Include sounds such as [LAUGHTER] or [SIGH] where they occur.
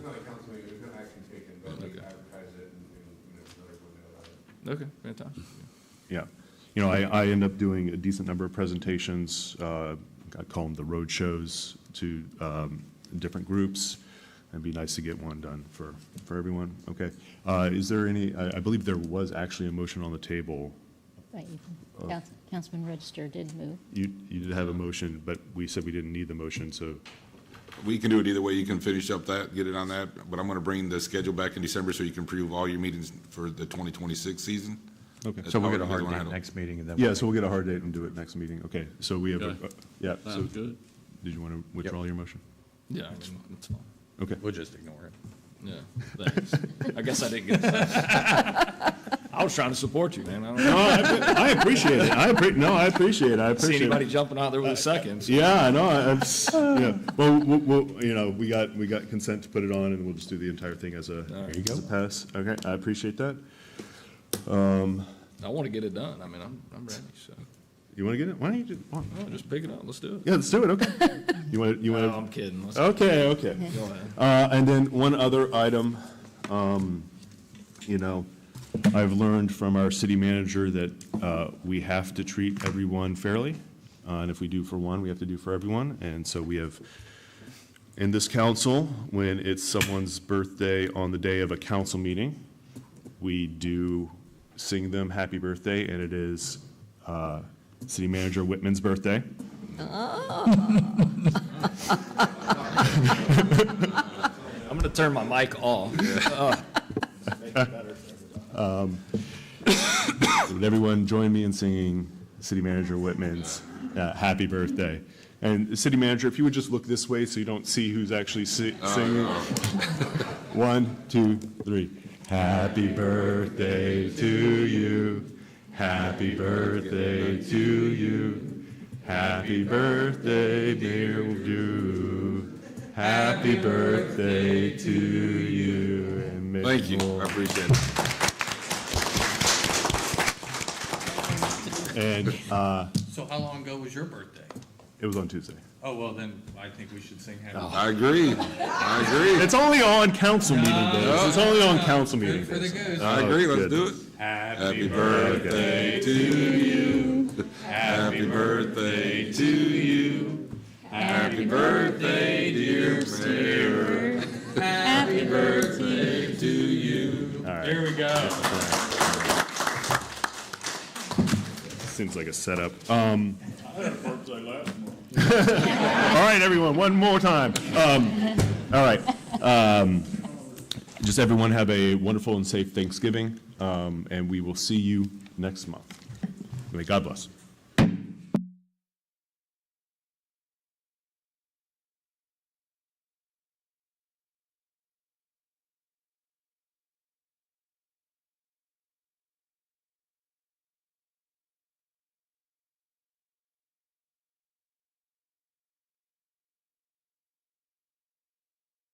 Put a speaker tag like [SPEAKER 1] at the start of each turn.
[SPEAKER 1] Okay, fantastic.
[SPEAKER 2] Yeah. You know, I, I end up doing a decent number of presentations, uh, I call them the road shows to, um, different groups. It'd be nice to get one done for, for everyone. Okay. Uh, is there any, I, I believe there was actually a motion on the table.
[SPEAKER 3] Right, you can- Council- Councilman Register did move.
[SPEAKER 2] You, you did have a motion, but we said we didn't need the motion, so,
[SPEAKER 4] We can do it either way. You can finish up that, get it on that, but I'm gonna bring the schedule back in December so you can preview all your meetings for the twenty twenty-six season.
[SPEAKER 2] okay.
[SPEAKER 4] That's
[SPEAKER 5] So we'll
[SPEAKER 4] how
[SPEAKER 5] get a
[SPEAKER 4] we're
[SPEAKER 5] hard
[SPEAKER 4] gonna
[SPEAKER 5] date
[SPEAKER 4] handle it.
[SPEAKER 5] next meeting and then.
[SPEAKER 2] Yeah, so we'll get a hard date and do it next meeting. Okay, so we have, a- uh,
[SPEAKER 1] Okay.
[SPEAKER 2] yeah, so,
[SPEAKER 1] Sounds good.
[SPEAKER 2] did you want to withdraw your motion?
[SPEAKER 1] Yeah, I mean, it's fine.
[SPEAKER 2] Okay.
[SPEAKER 5] We'll just ignore it.
[SPEAKER 1] Yeah, thanks. I guess I didn't get that. [LAUGHS] I was trying to support you, man. I don't
[SPEAKER 2] No, Oh, I appreciate it. I appre, no, I appreciate it. I
[SPEAKER 1] see
[SPEAKER 2] appreciate
[SPEAKER 1] anybody
[SPEAKER 2] it.
[SPEAKER 1] jumping out there with a second. so-
[SPEAKER 2] Yeah, I know, I- I'm, [LAUGHS] s- yeah, well, we, we, you know, we got, we got consent to put it on and we'll just do the entire thing as a,
[SPEAKER 1] There
[SPEAKER 2] as a pass. Okay, I appreciate that.
[SPEAKER 1] I want to get it done. I mean, I'm, I'm ready, so.
[SPEAKER 2] You want to get it? Why don't you do, why-
[SPEAKER 1] No, just pick it up. Let's do it.
[SPEAKER 2] yeah, let's do it, okay. You want, to you
[SPEAKER 1] No,
[SPEAKER 2] want,
[SPEAKER 1] I'm kidding. Let's
[SPEAKER 2] to okay, okay.
[SPEAKER 1] go ahead.
[SPEAKER 2] Uh, And then one other item, um, you know, I've learned from our city manager that uh, we have to treat everyone fairly, uh, and if we do for one, we have to do for everyone. And so we have, in this council, when it's someone's birthday on the day of a council meeting, we do sing them happy birthday, and it is uh, City Manager Whitman's birthday.
[SPEAKER 1] I'm going to turn my mic off.
[SPEAKER 2] Would everyone join me in singing City Manager Whitman's uh, Happy Birthday? And City Manager, if you would just look this way so you don't see who's actually si- singing. [LAUGHS] One, two, three. Happy birthday to you. Happy birthday to you. Happy birthday, dear you. Happy birthday to you. and many
[SPEAKER 4] Thank you.
[SPEAKER 2] more.
[SPEAKER 4] I appreciate it.
[SPEAKER 2] And uh,
[SPEAKER 6] So how long ago was your birthday?
[SPEAKER 2] it was on Tuesday.
[SPEAKER 6] Oh, well, then I think we should sing happy.
[SPEAKER 5] Oh.
[SPEAKER 4] I agree. I
[SPEAKER 2] It's only on council meeting days. It's only on council meeting
[SPEAKER 6] Good for the
[SPEAKER 2] days. Uh,
[SPEAKER 4] agree. I
[SPEAKER 6] goose.
[SPEAKER 4] agree. Let's
[SPEAKER 2] good.
[SPEAKER 4] do it. Happy birthday to you. Happy birthday to you. Happy birthday, dear Mayor.
[SPEAKER 3] Happy
[SPEAKER 4] Birthday to you.
[SPEAKER 6] There we go.
[SPEAKER 2] Seems like a setup. Um, [LAUGHS] All right, everyone, one more time. Um, All right. Um, Just everyone have a wonderful and safe Thanksgiving, um, and we will see you next month. May God bless.